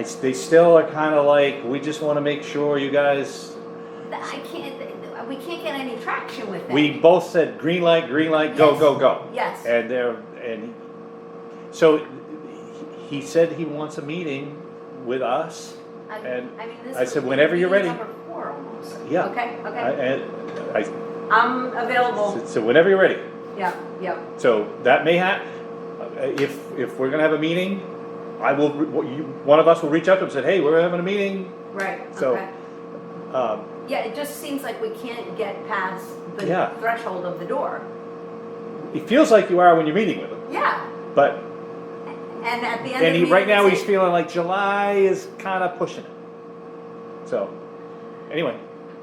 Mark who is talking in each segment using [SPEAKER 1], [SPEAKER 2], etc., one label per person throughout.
[SPEAKER 1] It's- They still are kind of like, we just want to make sure you guys,
[SPEAKER 2] I can't, we can't get any traction with that.
[SPEAKER 1] we both said green light, green light, go,
[SPEAKER 2] Yes.
[SPEAKER 1] go, go.
[SPEAKER 2] Yes.
[SPEAKER 1] And they're, and, so he said he wants a meeting with us.
[SPEAKER 2] I-
[SPEAKER 1] and
[SPEAKER 2] I mean, this
[SPEAKER 1] I
[SPEAKER 2] is
[SPEAKER 1] said, whenever you're
[SPEAKER 2] meeting
[SPEAKER 1] ready.
[SPEAKER 2] number four almost.
[SPEAKER 1] Yeah.
[SPEAKER 2] Okay,
[SPEAKER 1] I-
[SPEAKER 2] okay.
[SPEAKER 1] And I,
[SPEAKER 2] I'm available.
[SPEAKER 1] so whenever you're ready.
[SPEAKER 2] Yeah, yeah.
[SPEAKER 1] So that may hap, uh, if, if we're gonna have a meeting, I will, re- you, one of us will reach out to him and say, hey, we're having a meeting.
[SPEAKER 2] Right,
[SPEAKER 1] So-
[SPEAKER 2] okay.
[SPEAKER 1] Um,
[SPEAKER 2] Yeah, it just seems like we can't get past the
[SPEAKER 1] Yeah.
[SPEAKER 2] threshold of the door.
[SPEAKER 1] It feels like you are when you're meeting with him,
[SPEAKER 2] Yeah,
[SPEAKER 1] but,
[SPEAKER 2] and at the end of
[SPEAKER 1] and he,
[SPEAKER 2] the
[SPEAKER 1] right now,
[SPEAKER 2] meeting,
[SPEAKER 1] he's feeling like July is kinda pushing it. So, anyway,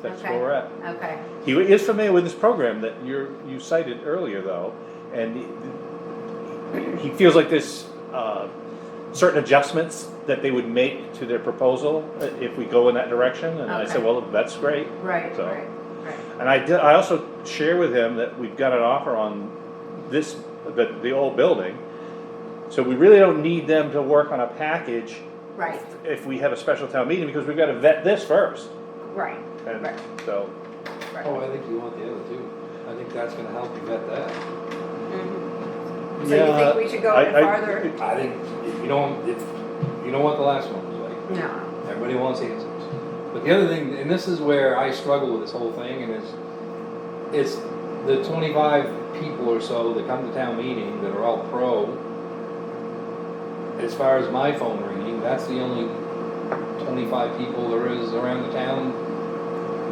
[SPEAKER 1] that's where
[SPEAKER 2] Okay.
[SPEAKER 1] we're at.
[SPEAKER 2] Okay,
[SPEAKER 1] He is familiar with this program that you're, you cited earlier though, and he he feels like there's, uh, certain adjustments that they would make to their proposal uh, if we go in that direction, and I said,
[SPEAKER 2] Okay.
[SPEAKER 1] well, that's great.
[SPEAKER 2] right,
[SPEAKER 1] So-
[SPEAKER 2] right, right.
[SPEAKER 1] And I did, I also share with him that we've got an offer on this, the, the old building. So we really don't need them to work on a package
[SPEAKER 2] Right,
[SPEAKER 1] if we have a special town meeting, because we've gotta vet this first.
[SPEAKER 2] right,
[SPEAKER 1] And
[SPEAKER 2] Right.
[SPEAKER 1] so,
[SPEAKER 3] Oh, I think you want the other two. I think that's gonna help you vet that.
[SPEAKER 2] Mhm. So you
[SPEAKER 1] yeah.
[SPEAKER 2] think we should go
[SPEAKER 1] I-
[SPEAKER 2] even
[SPEAKER 1] I-
[SPEAKER 2] farther?
[SPEAKER 3] I think, if you don't, if, you know what the last one was like.
[SPEAKER 2] No,
[SPEAKER 3] Everybody wants answers. But the other thing, and this is where I struggle with this whole thing, and it's, it's the twenty-five people or so that come to town meeting that are all pro. As far as my phone ringing, that's the only twenty-five people there is around the town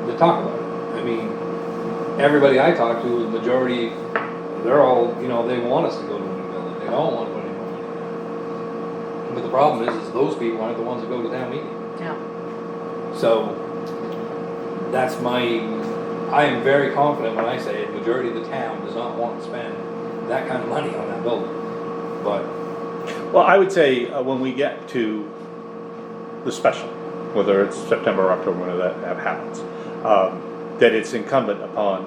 [SPEAKER 3] that talk about it. I mean, everybody I talk to, the majority, they're all, you know, they want us to go to a new building, they don't wanna go to a new building. But the problem is, is those people aren't the ones that go to town meeting.
[SPEAKER 2] no,
[SPEAKER 3] So that's my, I am very confident when I say a majority of the town does not want to spend that kind of money on that building. But,
[SPEAKER 1] Well, I would say, uh, when we get to the special, whether it's September or October, whenever that, that happens, um, that it's incumbent upon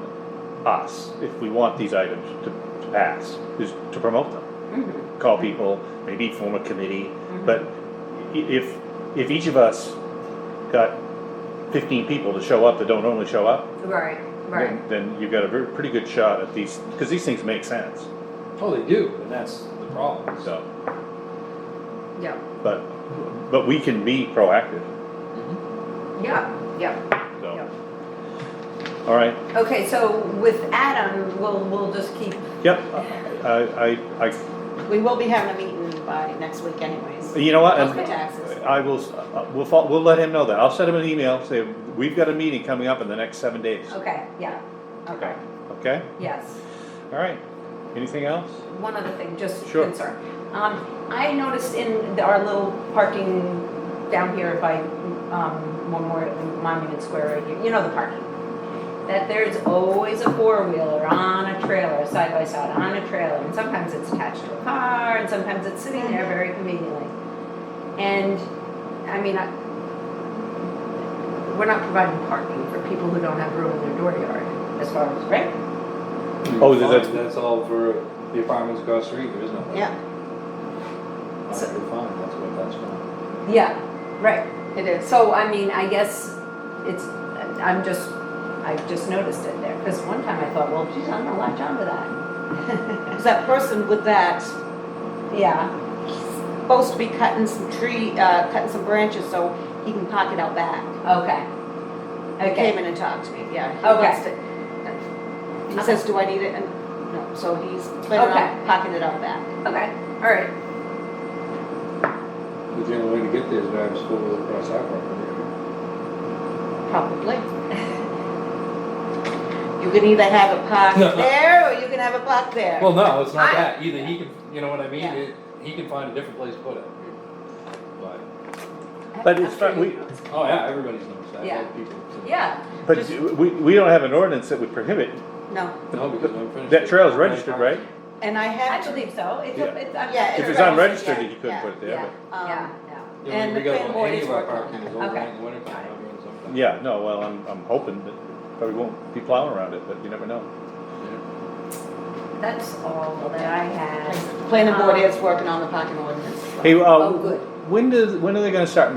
[SPEAKER 1] us, if we want these items to, to pass, is to promote them.
[SPEAKER 2] Mhm.
[SPEAKER 1] call people, maybe form a committee, but i- if, if each of us got fifteen people to show up that don't normally show up,
[SPEAKER 2] Mm-hmm. right, right,
[SPEAKER 1] then, then you've got a ver- pretty good shot at these, because these things make sense,
[SPEAKER 3] oh, they do, and that's the problem, so.
[SPEAKER 1] so,
[SPEAKER 2] yeah,
[SPEAKER 1] but, but we can be proactive,
[SPEAKER 2] yeah, yeah.
[SPEAKER 1] so. All right,
[SPEAKER 2] Okay, so with Adam, we'll, we'll just keep,
[SPEAKER 1] yep, I, I, I,
[SPEAKER 4] We will be having a meeting by next week anyways.
[SPEAKER 1] you know what?
[SPEAKER 4] Of
[SPEAKER 1] and
[SPEAKER 4] the
[SPEAKER 2] Okay.
[SPEAKER 4] taxes.
[SPEAKER 1] I will, s- uh, we'll, fol- we'll let him know that, I'll send him an email, say, we've got a meeting coming up in the next seven days,
[SPEAKER 2] okay, yeah, okay,
[SPEAKER 1] okay?
[SPEAKER 2] yes.
[SPEAKER 1] All right, anything else?
[SPEAKER 2] One other thing, just
[SPEAKER 1] Sure.
[SPEAKER 2] concern. Um, I noticed in the- our little parking down here by, um, Memorial, Monument Square, right here, you know the parking. That there's always a four-wheeler on a trailer, side by side, on a trailer, and sometimes it's attached to a car, and sometimes it's sitting there very conveniently. And, I mean, I, we're not providing parking for people who don't have room in their door yard, as far as, right?
[SPEAKER 1] Oh, is that-
[SPEAKER 3] That's all for the apartments across the street, there is no.
[SPEAKER 4] Yeah,
[SPEAKER 3] That's fine, that's what that's for.
[SPEAKER 2] Yeah, right.
[SPEAKER 4] it is.
[SPEAKER 2] So, I mean, I guess it's, I'm just, I just noticed it there, because one time I thought, well, geez, I'm gonna latch onto that.
[SPEAKER 4] Because that person with that,
[SPEAKER 2] Yeah,
[SPEAKER 4] supposed to be cutting some tree, uh, cutting some branches so he can park it out back.
[SPEAKER 2] okay.
[SPEAKER 4] Came
[SPEAKER 2] Okay,
[SPEAKER 4] in and talked to me, yeah. he
[SPEAKER 2] Okay.
[SPEAKER 4] wants to- He says, do I need it? And, no, so he's planning
[SPEAKER 2] Okay.
[SPEAKER 4] on parking it out back.
[SPEAKER 2] okay, all right.
[SPEAKER 3] The only way to get there is drive a school with across that property.
[SPEAKER 4] Probably. You can either have it
[SPEAKER 3] No.
[SPEAKER 4] parked there or you can have it parked there.
[SPEAKER 3] Well, no, it's not
[SPEAKER 2] I-
[SPEAKER 3] that, either he can, you know what I mean,
[SPEAKER 4] Yeah.
[SPEAKER 3] It- he can find a different place to put it. But,
[SPEAKER 1] But it's
[SPEAKER 2] After
[SPEAKER 1] fine, we-
[SPEAKER 2] you notice.
[SPEAKER 3] oh yeah, everybody's noticed that,
[SPEAKER 2] Yeah.
[SPEAKER 3] all the people.
[SPEAKER 2] Yeah,
[SPEAKER 1] But
[SPEAKER 4] Just-
[SPEAKER 1] we, we don't have an ordinance that would prohibit,
[SPEAKER 4] No,
[SPEAKER 3] No, because I'm finished.
[SPEAKER 1] that trail is registered, right?
[SPEAKER 4] and I
[SPEAKER 2] I
[SPEAKER 4] had to,
[SPEAKER 2] believe so. It's,
[SPEAKER 1] Yeah.
[SPEAKER 2] a- it's. I'm-
[SPEAKER 4] Yeah,
[SPEAKER 1] If it's
[SPEAKER 4] Registered,
[SPEAKER 1] unregistered,
[SPEAKER 4] yeah,
[SPEAKER 1] you couldn't
[SPEAKER 4] yeah,
[SPEAKER 1] put it
[SPEAKER 2] Yeah,
[SPEAKER 1] there,
[SPEAKER 2] yeah,
[SPEAKER 4] um,
[SPEAKER 2] yeah.
[SPEAKER 3] Yeah, when
[SPEAKER 4] And
[SPEAKER 3] we
[SPEAKER 4] the
[SPEAKER 3] go
[SPEAKER 4] planning board
[SPEAKER 3] any
[SPEAKER 4] is
[SPEAKER 3] of our
[SPEAKER 4] working on
[SPEAKER 3] parking
[SPEAKER 4] it.
[SPEAKER 3] is open
[SPEAKER 2] Okay.
[SPEAKER 3] in the wintertime, I mean,
[SPEAKER 1] but,
[SPEAKER 3] sometimes.
[SPEAKER 1] yeah, no, well, I'm, I'm hoping that, probably won't be plowing around it, but you never know.
[SPEAKER 2] That's all that I had. Uh-huh.
[SPEAKER 4] planning board is working on the parking ordinance. as well.
[SPEAKER 1] Hey,
[SPEAKER 2] Oh,
[SPEAKER 1] uh,
[SPEAKER 2] good.
[SPEAKER 1] when does, when are they gonna start